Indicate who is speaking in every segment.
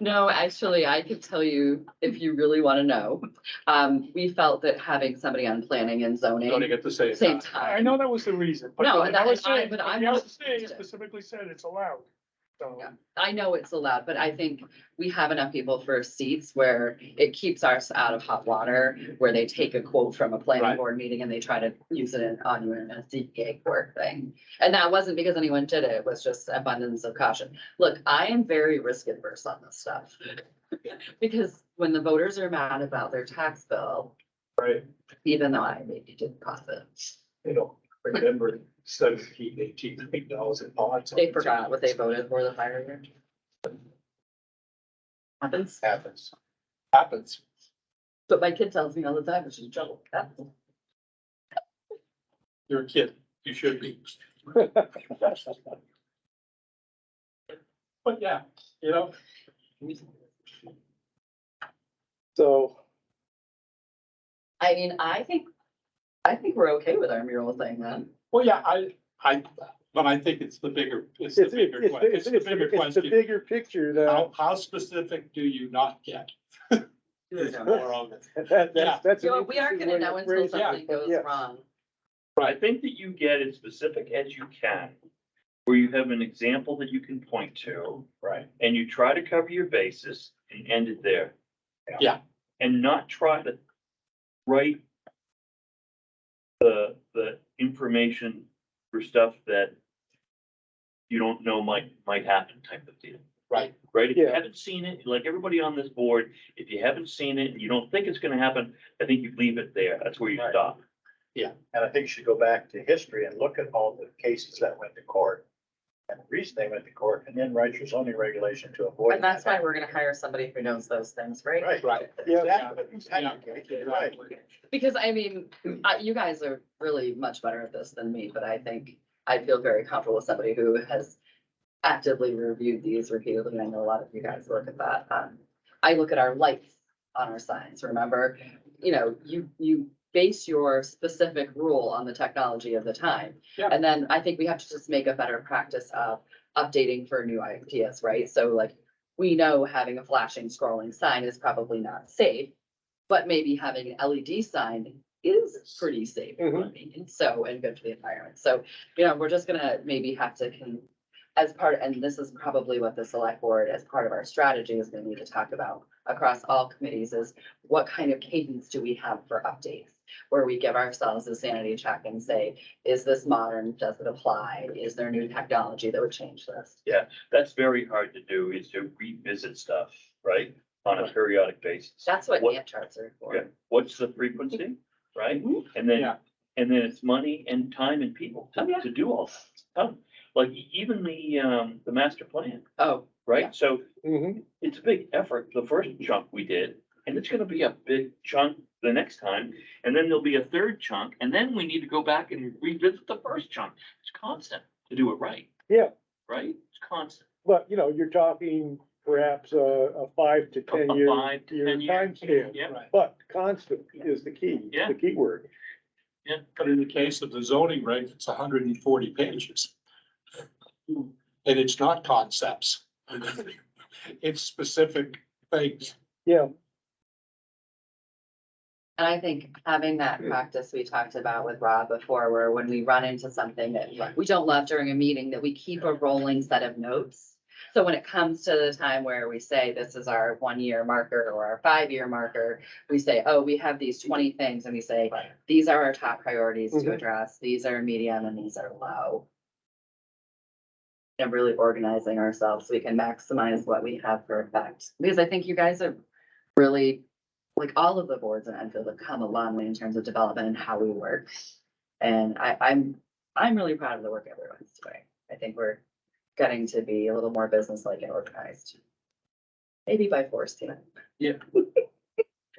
Speaker 1: No, actually, I could tell you if you really want to know. Um, we felt that having somebody on planning and
Speaker 2: Gonna
Speaker 1: zoning.
Speaker 2: get the same.
Speaker 1: Same
Speaker 3: I
Speaker 1: time.
Speaker 3: know that was the reason, but
Speaker 1: No,
Speaker 3: the
Speaker 1: and I-
Speaker 3: LSA,
Speaker 1: but
Speaker 3: but
Speaker 1: I'm
Speaker 3: the
Speaker 1: not-
Speaker 3: LSA specifically said it's allowed, so.
Speaker 1: Yeah. I know it's allowed, but I think we have enough people for seats where it keeps us out of hot water, where they take a quote from a planning
Speaker 2: Right.
Speaker 1: board meeting and they try to use it in- on a CPA court thing. And that wasn't because anyone did it, it was just abundance of caution. Look, I am very risk adverse on this stuff. Because when the voters are mad about their tax bill,
Speaker 2: Right,
Speaker 1: even though I maybe didn't pass it,
Speaker 2: you know, remember seventeen, eighteen, eight dollars in pots.
Speaker 1: They forgot what they voted for the fire year. Happens,
Speaker 2: Happens. Happens.
Speaker 1: but my kid tells me all the time, it's just trouble. That's-
Speaker 2: You're a kid. You should be. But yeah, you know.
Speaker 4: So,
Speaker 1: I mean, I think, I think we're okay with our mural thing then.
Speaker 2: Well, yeah, I, I, but I think it's the bigger, it's the
Speaker 4: it's, it's,
Speaker 2: bigger, que-
Speaker 4: it's,
Speaker 2: it's the
Speaker 4: it's,
Speaker 2: bigger
Speaker 4: it's the uh,
Speaker 2: question. Oh,
Speaker 4: bigger picture
Speaker 2: How,
Speaker 4: though.
Speaker 2: how specific do you not get? Is more of it.
Speaker 4: That,
Speaker 2: Yeah.
Speaker 4: that's, that's. an
Speaker 1: So we aren't
Speaker 4: interesting
Speaker 1: gonna
Speaker 4: way to
Speaker 1: know until
Speaker 4: phrase it,
Speaker 1: something
Speaker 4: but
Speaker 1: goes
Speaker 4: yeah.
Speaker 1: wrong.
Speaker 5: I think that you get as specific as you can, where you have an example that you can point to,
Speaker 2: Right.
Speaker 5: and you try to cover your bases and end it there.
Speaker 2: Yeah.
Speaker 5: And not try to write the, the information for stuff that you don't know might, might happen type of deal.
Speaker 2: Right.
Speaker 5: Right? If you
Speaker 4: Yeah.
Speaker 5: haven't seen it, like everybody on this board, if you haven't seen it and you don't think it's gonna happen, I think you leave it there. That's where you
Speaker 6: Right.
Speaker 5: stop.
Speaker 6: And I think you should go back to history and look at all the cases that went to court. And the reason they went to court and then write your zoning regulation to avoid.
Speaker 1: And that's why we're gonna hire somebody who knows those things, right?
Speaker 6: Right,
Speaker 2: Right.
Speaker 4: Yeah.
Speaker 6: exactly, exactly, right.
Speaker 1: Because I mean, uh, you guys are really much better at this than me, but I think I feel very comfortable with somebody who has actively reviewed these repeatedly. and I know a lot of you guys look at that. Um, I look at our lights on our signs, remember? You know, you, you base your specific rule on the technology of the time.
Speaker 2: Yeah.
Speaker 1: And then I think we have to just make a better practice of updating for new ideas, right? So like, we know having a flashing scrolling sign is probably not safe, but maybe having an LED sign is pretty safe, in
Speaker 5: Mm-hmm.
Speaker 1: my opinion, so, and good for the environment. So, you know, we're just gonna maybe have to can, as part, and this is probably what the select board, as part of our strategy, is gonna need to talk about across all committees is what kind of cadence do we have for updates? Where we give ourselves a sanity check and say, is this modern? Does it apply? Is there new technology that would change this?
Speaker 5: that's very hard to do, is to revisit stuff, right, on a periodic basis.
Speaker 1: That's what
Speaker 5: What-
Speaker 1: Gantt charts are
Speaker 5: Yeah,
Speaker 1: for.
Speaker 5: what's the frequency, right?
Speaker 1: Mhm.
Speaker 5: And then,
Speaker 2: Yeah.
Speaker 5: and then it's money and time and people to,
Speaker 1: Oh, Yeah.
Speaker 5: to do all that. Um, Like e- even the, um, the master plan,
Speaker 1: Oh, Yeah.
Speaker 5: right? So
Speaker 4: Mhm.
Speaker 5: it's a big effort, the first chunk we did, and it's gonna be a big chunk the next time. And then there'll be a third chunk, and then we need to go back and revisit the first chunk. It's constant to do it right.
Speaker 4: Yeah.
Speaker 5: Right? It's constant.
Speaker 4: But, you know, you're talking perhaps a, a five to ten
Speaker 5: A- a
Speaker 4: year,
Speaker 5: five to
Speaker 4: year
Speaker 5: 10 year.
Speaker 4: time span.
Speaker 5: Yeah.
Speaker 4: But constant is the key,
Speaker 5: Yeah.
Speaker 4: the key word.
Speaker 2: But in the case of the zoning reg, it's hundred and forty pages. And it's not concepts. It's specific things.
Speaker 4: Yeah,
Speaker 1: And I think having that practice we talked about with Rob before, where when we run into something that
Speaker 2: Right.
Speaker 1: we don't love during a meeting, that we keep a rolling set of notes. So when it comes to the time where we say this is our one-year marker or our five-year marker, we say, oh, we have these twenty things, and we say,
Speaker 2: Right.
Speaker 1: these are our top priorities to
Speaker 4: Mhm.
Speaker 1: address, these are medium and these are low. And really organizing ourselves so we can maximize what we have for effect, because I think you guys are really, like, all of the boards in Enfield have come a long way in terms of development and how we work. And I, I'm, I'm really proud of the work everyone's doing, I think we're getting to be a little more business-like and organized. Maybe by force, you know.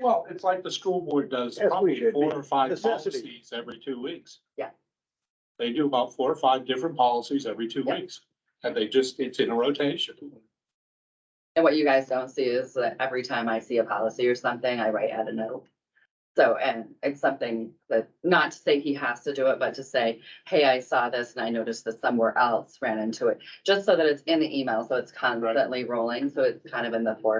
Speaker 2: Well, it's like the school board does
Speaker 4: Yes, we
Speaker 2: probably
Speaker 4: should
Speaker 2: four
Speaker 4: be.
Speaker 2: or five
Speaker 4: Necessity.
Speaker 2: policies every two weeks.
Speaker 1: Yeah.
Speaker 2: They do about four or five different policies every two
Speaker 1: Yeah.
Speaker 2: weeks, and they just, it's in a rotation.
Speaker 1: And what you guys don't see is that every time I see a policy or something, I write out a note. So, and it's something that, not to say he has to do it, but to say, hey, I saw this and I noticed that somewhere else ran into it. Just so that it's in the email, so it's constantly rolling, so it's kind of in the forefront